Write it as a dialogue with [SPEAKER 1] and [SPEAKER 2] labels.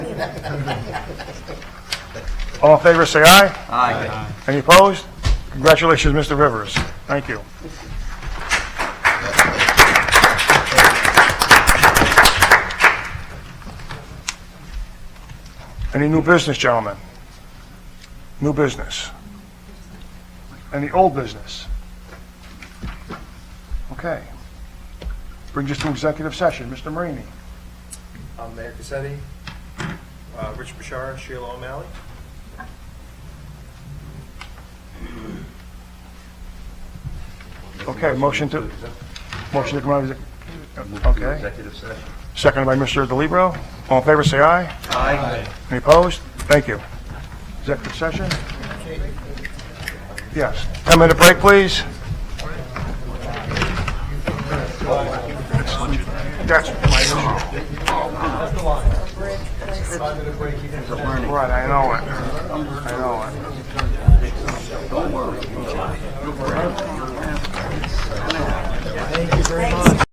[SPEAKER 1] All in favor, say aye.
[SPEAKER 2] Aye.
[SPEAKER 1] Any opposed? Congratulations, Mr. Rivers. Thank you. Any new business, gentlemen? New business? Any old business? Okay. Brings us to executive session. Mr. Marini?
[SPEAKER 3] I'm Mayor Cassetti, uh, Richard Bashara, Sheila O'Malley.
[SPEAKER 1] Okay, motion to, motion to come out of, exec- okay.
[SPEAKER 3] Executive session.
[SPEAKER 1] Seconded by Mr. DeLibero. All in favor, say aye.
[SPEAKER 3] Aye.
[SPEAKER 1] Any opposed? Thank you. Executive session? Yes. 10-minute break, please. That's my issue. Right, I know it. I know it.